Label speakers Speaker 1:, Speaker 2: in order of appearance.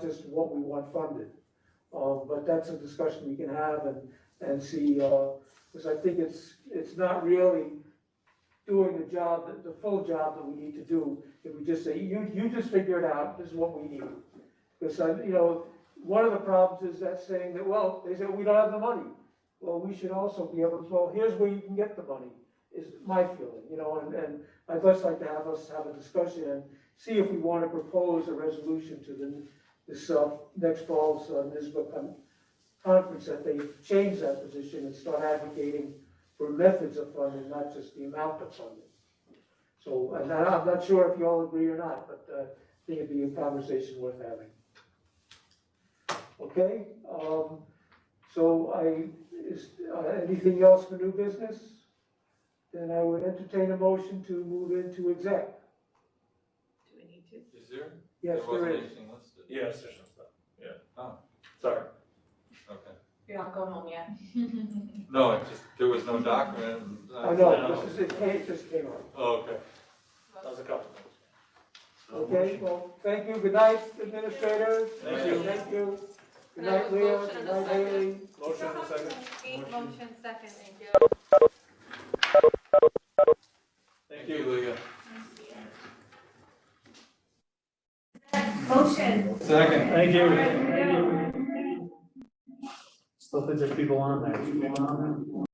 Speaker 1: just what we want funded. Um, but that's a discussion we can have and, and see, uh, because I think it's, it's not really doing the job, that- the full job that we need to do. If we just say, you, you just figure it out, this is what we need. Because, I- you know, one of the problems is that saying that, well, they say, we don't have the money. Well, we should also be able to, well, here's where you can get the money, is my feeling, you know, and, and I'd just like to have us have a discussion and see if we want to propose a resolution to the, this, uh, next fall's, uh, NISBA con- conference, that they change that position and start advocating for methods of funding, not just the amount of funding. So, and I- I'm not sure if you all agree or not, but, uh, I think it'd be a conversation worth having. Okay, um, so I, is, uh, anything else for new business? Then I would entertain a motion to move into exec.
Speaker 2: Do we need to?
Speaker 3: Is there?
Speaker 1: Yes, there
Speaker 3: wasn't
Speaker 1: is.
Speaker 3: anything listed.
Speaker 4: Yes, there's some stuff. Yeah.
Speaker 3: Oh.
Speaker 4: Sorry.
Speaker 3: Okay.
Speaker 2: You're not going home yet.
Speaker 3: No, it just, there was no document.
Speaker 1: I know, this is, it came, this came up.
Speaker 3: Oh, okay.
Speaker 4: That was a couple things.
Speaker 1: Okay, well, thank you, good night, administrators.
Speaker 3: Thank you.
Speaker 1: Thank you. Good
Speaker 2: Can I have
Speaker 1: night,
Speaker 2: a
Speaker 1: Leah,
Speaker 2: motion
Speaker 1: good
Speaker 2: and a
Speaker 1: night,
Speaker 2: second?
Speaker 1: Haley.
Speaker 4: Motion in a second.
Speaker 2: Eight motion second, thank you.
Speaker 3: Thank you, Leah.
Speaker 5: Motion.
Speaker 3: Second.
Speaker 4: Thank you.
Speaker 5: Thank you.
Speaker 4: Still think there's people on there.